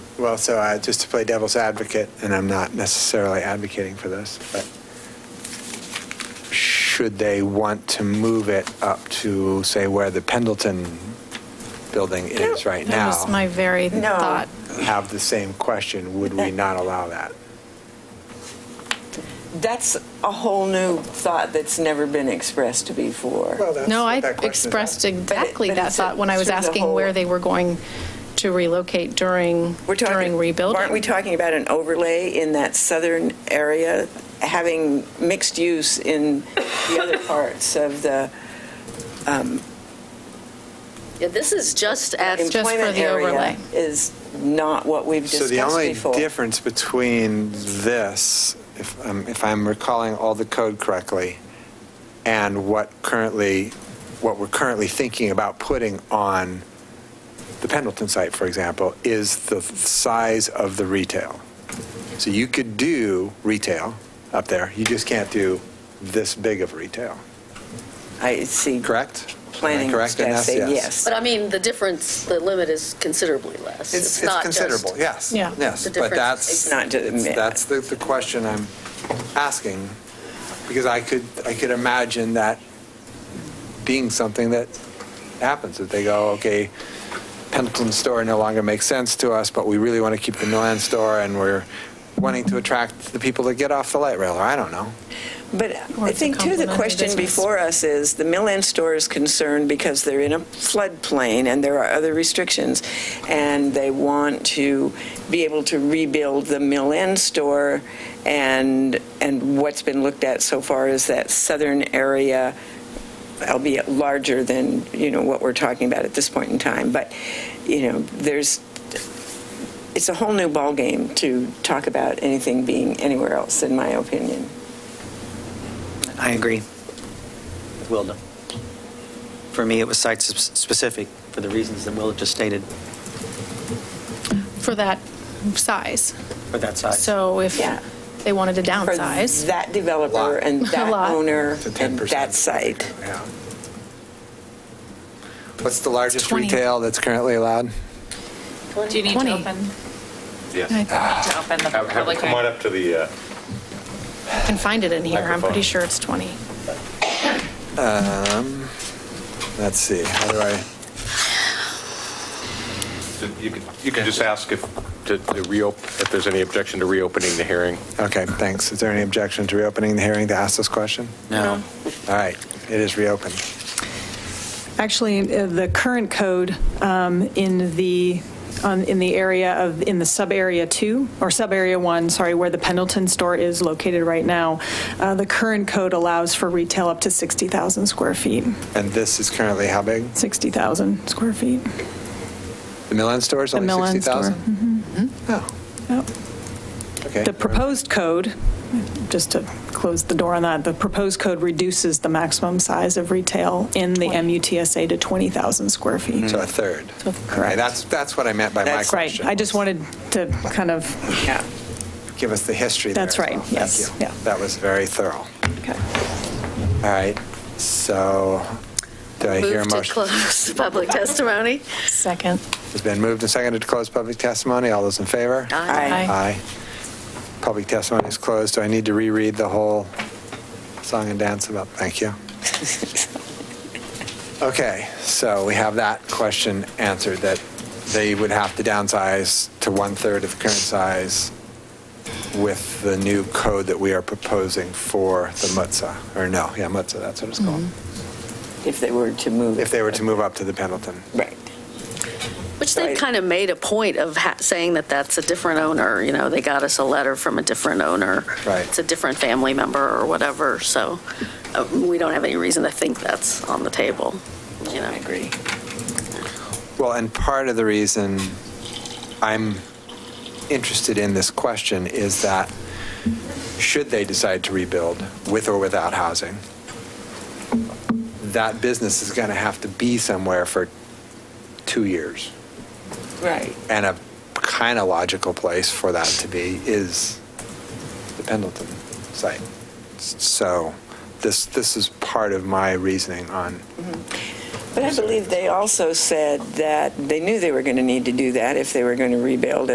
Well, so uh, just to play devil's advocate, and I'm not necessarily advocating for this, but should they want to move it up to, say, where the Pendleton building is right That was my now? very No. thought. Have the same question, would we not allow that? That's a whole new thought that's never been expressed before. No, I expressed exactly but that it's a- thought when I was through the asking whole- where they were going to relocate during, We're talking- during rebuilding. Aren't we talking about an overlay in that southern area, having mixed use in the other parts of the Yeah, this is just at, It's just for employment the area? overlay. Is not what we've So the discussed only before. difference between this, if I'm, if I'm recalling all the code correctly, and what currently, what we're currently thinking about putting on the Pendleton site, for example, is the size of the retail. So you could do retail up there, you just can't do this big of retail, I see. correct? Am I Planning correct in this? staff say Yes. yes. but I mean, the difference, the limit is considerably less. It's, it's not just- considerable, yes. Yeah. Yes, The but difference that's, is not to admit. that's the, the question I'm asking, because I could, I could imagine that being something that happens, that they go, okay, Pendleton store no longer makes sense to us, but we really want to keep the Milan store, and we're wanting to attract the people that get off the light rail, or I don't know. But Or I it's a think, too, the complementary question business. before us is, the Mill End store is concerned because they're in a floodplain and there are other restrictions, and they want to be able to rebuild the Mill End store, and, and what's been looked at so far is that southern area, albeit larger than, you know, what we're talking about at this point in time, but, you know, there's, it's a whole new ballgame to talk about anything being anywhere else, in my opinion. I agree. Will done. For me, it was site-specific for the reasons that Will just stated For that size. for that site. So if Yeah. they wanted to for downsize, that developer Lot. and A that lot. owner It's a 10%. and that site. Yeah. What's the largest 20. retail that's currently allowed? Do you need to 20. open, I Yes. to open the Have, have, public come on hearing? up to the, uh, I can find it in here. I'm pretty Microphone. sure it's 20. Um, let's see, how do I? you could, you could just ask if, to to reopen, if there's any objection to reopening the hearing. Okay, thanks. Is there any objection to reopening the hearing to ask this question? No. All right, it is reopened. Actually, uh, the current code um, in the, on- in the area of, in the sub-area two, or sub-area one, sorry, where the Pendleton store is located right now, uh, the current code allows for retail up to 60,000 square feet, And this is currently how big? 60,000 square feet. The Milan store is The only Milan 60,000? store, Oh, Yep. okay. The proposed code, just to close the door on that, the proposed code reduces the maximum size of retail in the MUTSA to 20,usand square feet. So a third. So- Okay, correct. that's, that's what I meant by my That's Right. question. I just wanted to kind of Yeah. Give us the history there. That's as right, well. yes, Thank you. yeah. That was very thorough. Okay. All right, so do I hear a Move to motion? close public testimony. Second. It's been moved and seconded to close public testimony. All those in favor? Aye. Aye. Public testimony is closed. Do I need to reread the whole song and dance about, thank you? Okay, so we have that question answered, that they would have to downsize to one-third of the current size with the new code that we are proposing for the Mutza, or no, yeah, Mutza, that's what it's called, If they were to move. if they were to move up to the Pendleton. Right. Which they've Right. kind of made a point of ha- saying that that's a different owner, you know, they got us a letter from a different owner. Right. It's a different family member or whatever, so uh, we don't have any reason to think that's on the table, you know. I agree. Well, and part of the reason I'm interested in this question is that should they decide to rebuild with or without housing, that business is going to have to be somewhere for two years. Right. And a kind of logical place for that to be is the Pendleton site. So this, this is part of my reasoning on, But I believe they also said that they knew they were going to need to do that if they were going to rebuild